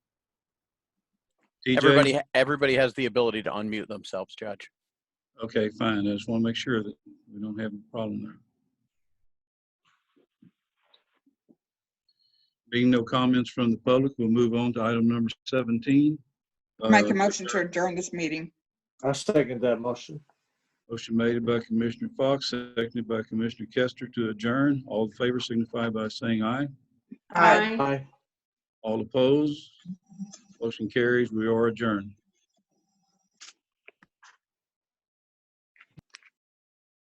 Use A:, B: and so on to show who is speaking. A: TJ?
B: Everybody, everybody has the ability to unmute themselves, Judge.
A: Okay, fine. I just want to make sure that we don't have a problem there. Being no comments from the public, we'll move on to item number 17.
C: Make
A: Uh,
C: a motion to adjourn this meeting.
D: I second that motion.
A: Motion made by Commissioner Fox, seconded by Commissioner Kester to adjourn. All in favor signify by saying aye.
C: Aye.
D: Aye.
A: All opposed? Motion carries. We are adjourned.